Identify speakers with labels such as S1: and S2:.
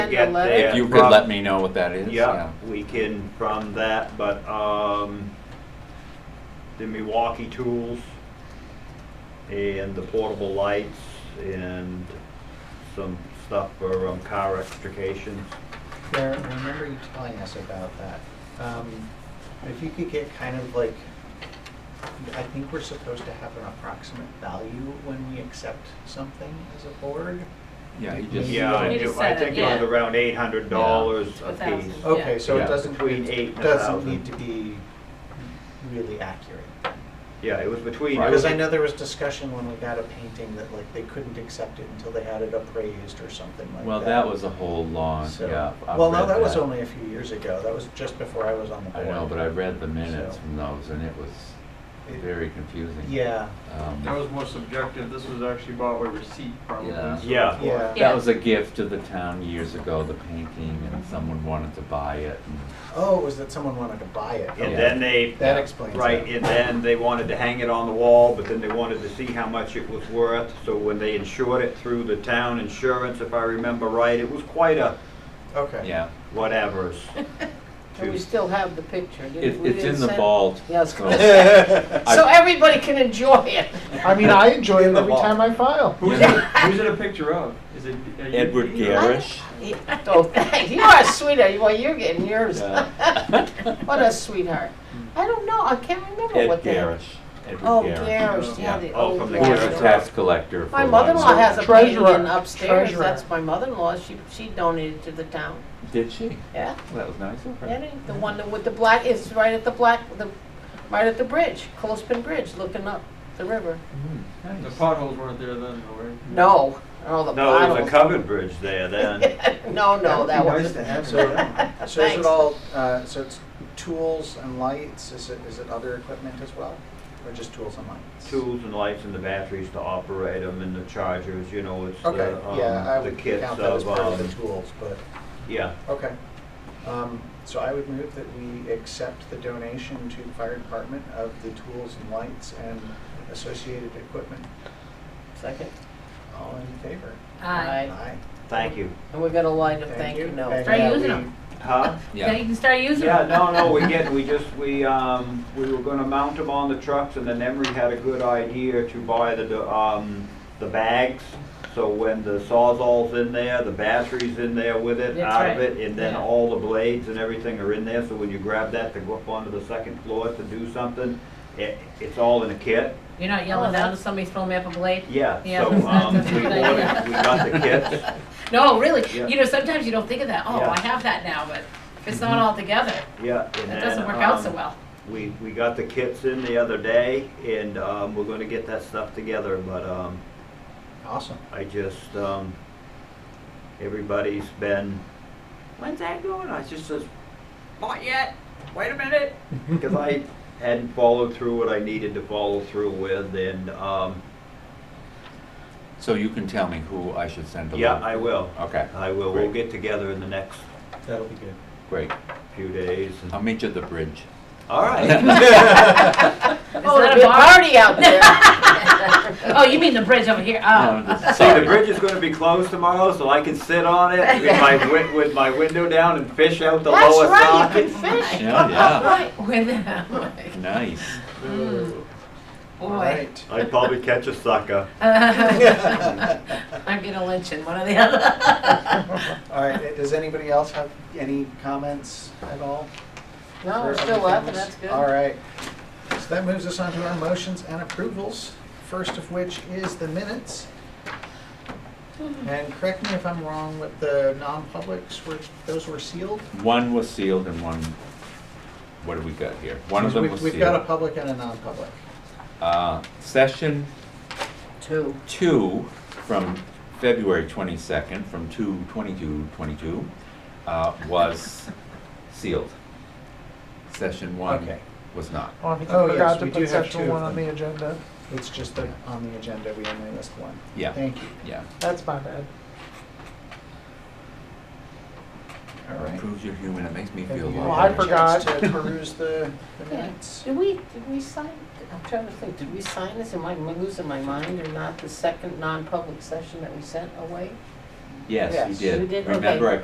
S1: get
S2: letter?
S1: that
S2: Yeah,
S3: If you could
S1: from-
S3: let me know what that is,
S1: Yeah,
S3: yeah.
S1: we can from that, but, um, the Milwaukee tools and the portable lights and some stuff for, um, car extrication.
S2: There, I remember you telling us about that. Um, If you could get kind of like, I think we're supposed to have an approximate value when we accept something as a board.
S3: Yeah, he just,
S1: Yeah, I
S4: We
S1: do,
S4: just
S1: I
S4: said it,
S1: think it was
S4: yeah.
S1: around eight hundred dollars
S4: Yeah,
S1: a
S4: a thousand.
S1: piece.
S2: Okay,
S4: Yeah.
S2: so
S3: Yeah.
S2: it doesn't,
S1: Between eight and
S2: it
S1: a
S2: doesn't
S1: thousand.
S2: need to be really accurate.
S1: Yeah, it was between.
S3: Right.
S2: Because I know there was discussion when we got a painting that like they couldn't accept it until they had it appraised or something like that.
S3: well, that was a whole long,
S2: So-
S3: yeah. I've
S2: Well, no,
S3: read
S2: that was only a few years ago. That was just before I was on the
S3: I
S2: board.
S3: know, but I read the minutes
S2: So-
S3: from those and it was
S2: It-
S3: very confusing.
S2: Yeah.
S3: Um,
S5: That was more subjective, this was actually bought with receipt probably.
S3: Yeah.
S5: so
S1: Yeah.
S5: it's more-
S2: Yeah.
S3: That was a gift to the town years ago, the painting, and someone wanted to buy it. and-
S2: Oh, it was that someone wanted to buy it.
S1: And
S3: Yeah.
S1: then they.
S2: That explains
S1: Right,
S2: it.
S1: and then they wanted to hang it on the wall, but then they wanted to see how much it was worth. So when they insured it through the town insurance, if I remember right, it was quite a
S2: Okay.
S3: Yeah,
S1: whatever's.
S6: And we still have the picture,
S3: it,
S6: didn't we?
S3: it's
S6: didn't
S3: in the
S6: send-
S3: vault.
S6: Yeah, I was
S3: so-
S6: gonna say.
S3: I-
S6: So everybody can enjoy it.
S2: I mean, I enjoy it every
S1: vault.
S2: time I file.
S5: Who's it, who's it a picture of? Is it? are you-
S3: Edward Garrish.
S6: Oh, thank you. You are a sweetheart. Well, you're getting yours.
S3: Yeah.
S6: What a sweetheart. I don't know. I can't remember
S3: Ed
S6: what that.
S3: Garrish. Edward
S6: Oh,
S3: Garrish.
S6: Garrish, yeah,
S3: Yeah.
S6: the
S1: Oh,
S6: old.
S1: from the
S3: Who was a
S1: Garrish.
S3: tax collector for.
S6: My
S3: a long
S6: mother-in-law
S3: time.
S6: has a
S2: Treasurer,
S6: painting upstairs.
S2: treasurer.
S6: That's my mother-in-law. She, she donated to the town.
S3: Did she?
S6: Yeah.
S3: Well, That was nice of her.
S6: That ain't the one that with the black, it's right at the black, the, right at the bridge, Clothespin Bridge, looking up the river.
S3: Mm,
S5: The
S3: nice.
S5: potholes weren't there then, though, right?
S6: No, oh, the
S1: No, there's a
S6: bottles.
S1: covered bridge there then.
S6: No, no, that
S5: would be
S6: wasn't.
S5: nice to have
S2: So,
S5: that.
S2: so is it
S6: Thanks.
S2: all? Uh, so it's tools and lights. Is it is it other equipment as well, or just tools and lights?
S1: Tools and lights and the batteries to operate them and the chargers, you know, it's
S2: Okay.
S1: the,
S2: yeah, I
S1: uh, um, the
S2: would
S1: kits
S2: count that as
S1: of,
S2: part of the
S1: um,
S2: tools, but
S1: yeah.
S2: okay. Um, so I would move that we accept the donation to the fire department of the tools and lights and associated equipment.
S6: Second.
S2: All in favor?
S4: Aye.
S2: Aye.
S1: Thank you.
S6: And we got a line of thank you
S2: And
S6: notes.
S4: Try
S2: that
S4: using
S2: we-
S4: 'em.
S1: Huh?
S4: Then you
S3: Yeah.
S4: can start using
S1: Yeah,
S4: them.
S1: no, no, we get, we just, we, um, we were gonna mount them on the trucks and then Emery had a good idea to buy the, do- um, the bags. So when the sawzall's in there, the battery's in there with it,
S4: That's
S1: out of
S4: right.
S1: it, and then
S4: Yeah.
S1: all the blades and everything are in there. So when you grab that to go up onto the second floor to do something, it, it's all in a kit.
S4: You're not yelling down to somebody throwing me up a blade?
S1: Yeah,
S4: Yeah,
S1: so,
S4: that's not-
S1: um,
S4: that's a
S1: we
S4: good
S1: ordered,
S4: idea.
S1: we got the kits.
S4: No, really,
S1: Yeah.
S4: you know, sometimes you don't think of that, oh,
S1: Yeah.
S4: I have that now, but if it's not all together,
S1: Yeah.
S4: it
S1: and
S4: doesn't
S1: then,
S4: work out so
S1: um,
S4: well.
S1: We, we got the kits in the other day and, um, we're gonna get that stuff together, but, um,
S2: Awesome.
S1: I just, um, everybody's been, when's that going? I just says, not yet, wait a minute. Because I hadn't followed through what I needed to follow through with and, um,
S3: So you can tell me who I should send a
S1: yeah,
S3: letter?
S1: I will.
S3: Okay,
S1: I will. We'll get together in the next
S2: That'll be good.
S3: great.
S1: few days. and-
S3: I'll meet you at the bridge.
S1: All right.
S4: Is
S6: Oh, a
S4: that a
S6: good
S4: bar?
S6: party out there.
S4: Oh, you mean the bridge over here,
S3: No,
S4: oh.
S3: this-
S1: See, the
S3: Sorry.
S1: bridge is gonna be closed tomorrow, so I can sit on it with my, win- with my window down and fish out the
S6: That's
S1: lowest
S6: right, you
S1: dock.
S6: can fish.
S3: Yeah, yeah,
S6: Right.
S4: With, boy.
S3: nice.
S6: Mm.
S2: All right.
S1: I'd probably catch a sucker.
S4: I'm gonna lynch in one or the other.
S2: All right, uh, does anybody else have any comments at all?
S6: No, we're
S2: for
S6: still
S2: other
S6: laughing,
S2: things?
S6: that's good.
S2: All right. So that moves us on to our motions and approvals, first of which is the minutes. And correct me if I'm wrong with the non-publics, were, those were sealed?
S3: One was sealed and one, what do we got here? One of them
S2: We've-
S3: was
S2: We've got a
S3: sealed.
S2: public and a non-public.
S3: Uh, Session
S6: Two.
S3: two from February 22nd, from 2/22/22, uh, was sealed. Session one
S2: Okay.
S3: was not.
S7: Oh, I think
S2: Oh,
S7: you
S2: yes,
S7: forgot to
S2: we do
S7: put
S2: have
S7: section
S2: two of
S7: one on
S2: them.
S7: the agenda.
S2: It's just that on the agenda, we only list one.
S3: Yeah,
S2: Thank you.
S3: yeah.
S7: That's my bad.
S2: All right.
S3: Proves you're human, it makes me feel
S2: Have you
S3: like.
S2: Oh,
S7: Well, I
S2: had a
S7: forgot.
S2: chance To peruse the the minutes.
S6: Did we, did we sign, I'm trying to think, did we sign this? Am I losing my mind or not? The second non-public session that we sent away?
S3: Yes, you
S2: Yes.
S3: did.
S6: You did? Okay.
S3: Remember, I